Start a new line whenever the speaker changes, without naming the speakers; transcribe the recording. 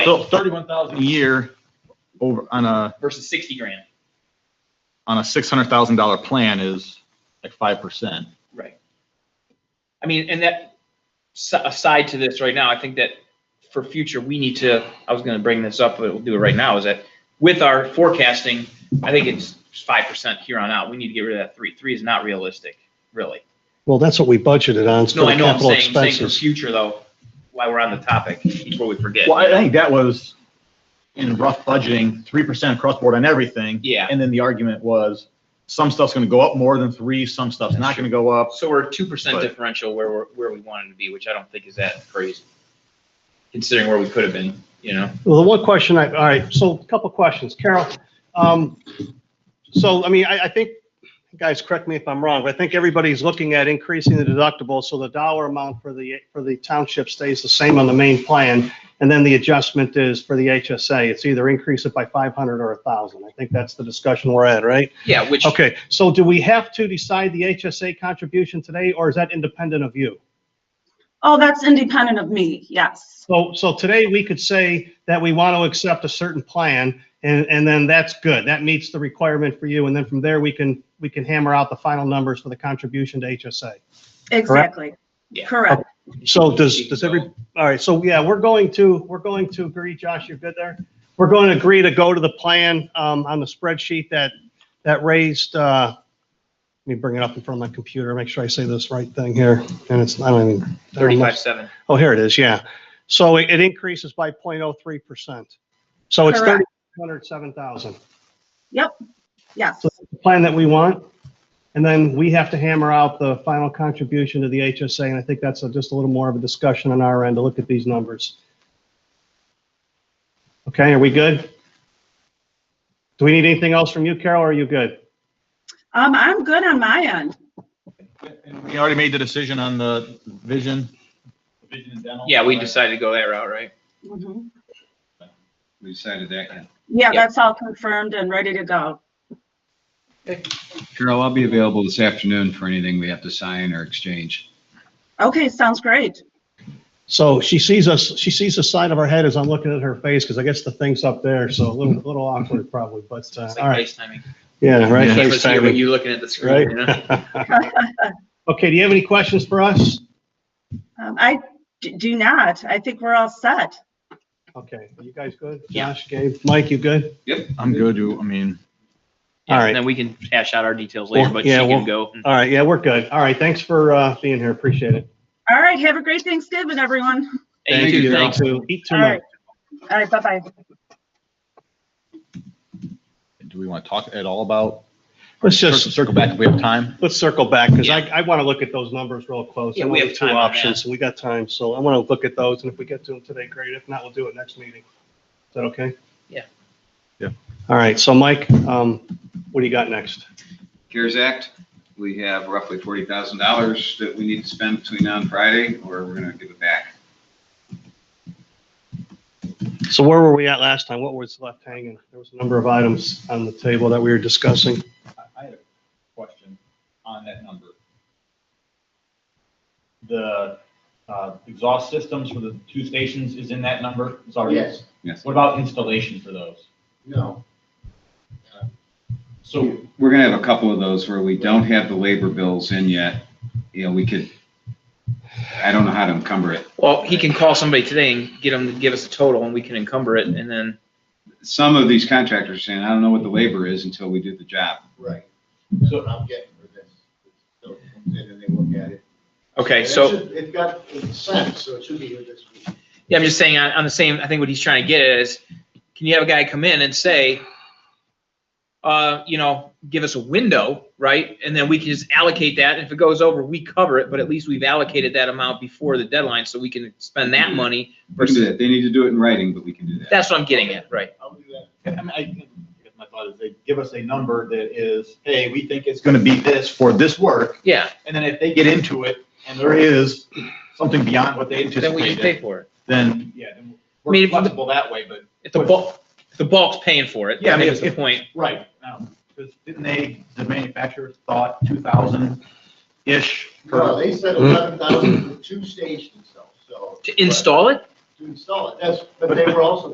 So thirty-one thousand a year over on a,
versus sixty grand.
on a six hundred thousand dollar plan is like five percent.
Right. I mean, and that, s- aside to this right now, I think that for future, we need to, I was gonna bring this up, but we'll do it right now, is that with our forecasting, I think it's five percent here on out. We need to get rid of that three. Three is not realistic, really.
Well, that's what we budgeted on, it's for
No, I
the
know, I'm
capital
saying, saying for
expenses.
future though, while we're on the topic, before we forget.
Well, I think that was in rough budgeting, three percent across board on everything.
Yeah.
And then the argument was, some stuff's gonna go up more than three, some stuff's not gonna go up.
So we're two percent
But-
differential where we're, where we wanted to be, which I don't think is that crazy. Considering where we could have been, you know?
Well, the one question I, all right, so a couple questions, Carol. Um, so, I mean, I, I think, guys, correct me if I'm wrong, but I think everybody's looking at increasing the deductible, so the dollar amount for the, for the township stays the same on the main plan, and then the adjustment is for the HSA, it's either increase it by five hundred or a thousand, I think that's the discussion we're at, right?
Yeah, which.
Okay, so do we have to decide the HSA contribution today, or is that independent of you?
Oh, that's independent of me, yes.
So, so today we could say that we want to accept a certain plan and, and then that's good. That meets the requirement for you. And then from there, we can, we can hammer out the final numbers for the contribution to HSA.
Exactly.
Yeah.
Correct.
So does, does every, all right, so yeah, we're going to, we're going to agree, Josh, you're good there? We're going to agree to go to the plan, um, on the spreadsheet that, that raised, uh, let me bring it up in front of my computer, make sure I say this right thing here. And it's, I don't even. I don't know.
Thirty-five, seven.
Oh, here it is, yeah. So it it increases by 0.03%. So it's
Correct.
307,000,
Yes,
So- the plan that we want. And then we have to hammer out the final contribution to the HSA, and I think that's a- just a little more of a discussion on our end to look at these numbers. Okay, are we good? Do we need anything else from you, Carol, or are you good?
um, I'm good on my end.
And We already made the decision on the vision. vision and dental.
Yeah, we decided to go that route, right?
Mhm.
We decided that.
Yeah,
Yeah.
that's all confirmed and ready to go.
Carol, I'll be available this afternoon for anything we have to sign or exchange.
Okay, sounds great.
So she sees us, she sees the side of our head as I'm looking at her face, because I guess the thing's up there, so a little, little awkward probably, but, uh,
It's
all
like
right.
FaceTiming.
Yeah, right.
Keep
face
us here,
timing.
but you looking at the screen, you know?
Right? Okay, do you have any questions for us?
Um, I d- do not. I think we're all set.
Okay, you guys good?
Yeah.
Josh, Gabe, Mike, you good?
I'm good, you- I mean,
All right.
And then we can hash out our details later,
Well,
but she
yeah,
can
well-
go.
All right, yeah, we're good. All right, thanks for uh, being here, appreciate it.
All right, have a great Thanksgiving, everyone.
Hey, you too, thanks.
too. Eat too
All
much.
right. All right, bye-bye.
do we want to talk at all about?
Let's
Cir-
just,
Circle back if we have time.
let's circle back, because I, I want to look at those numbers real close.
Yeah,
I
we
know
have
the
time
Two
on
options, we got time, so I want to look at those, and if we get to them today, great. If not, we'll do it next meeting. Is that okay?
Yeah.
Yeah.
All right, so Mike, um, what do you got next?
CARES Act, we have roughly forty thousand dollars that we need to spend between now and Friday, or we're gonna give it back.
So where were we at last time? What was left hanging? There was a number of items on the table that we were discussing.
I had a question on that number. The uh, exhaust systems for the two stations is in that number? It's already-
Yes,
Yes.
What about installation for those?
no. Uh,
So,
We're gonna have a couple of those where we don't have the labor bills in yet. You know, we could, I don't know how to encumber it.
Well, he can call somebody today and get them to give us a total and we can encumber it and then,
Some of these contractors are saying, I don't know what the labor is until we do the job.
Right. That's what I'm getting for this. So, And then they look at it.
okay,
And it
so,
should- It got it's sent, so it should be here this week.
yeah, I'm just saying, on, on the same, I think what he's trying to get at is, can you have a guy come in and say, uh, you know, give us a window, right? And then we can just allocate that. If it goes over, we cover it, but at least we've allocated that amount before the deadline so we can spend that money
We can do
versus,
that. They need to do it in writing, but we can do that.
that's what I'm getting at, right?
I'll do that.
I mean, I, I guess my thought is they give us a number that is, hey, we think it's gonna be this for this work,
Yeah,
and then if they get into it and there is something beyond what they
then we just pay
anticipated,
for it.
then, yeah, then
I mean,
we're
if-
flexible that way, but,
If the bulk, if the bulk's paying for it,
Yeah, I
that
mean,
was the
if-
point.
right, because didn't they, the manufacturer thought two thousand-ish
No,
per,
they said eleven thousand for two stations though, so.
Mm-hmm. To install it?
To install it, that's, but they were also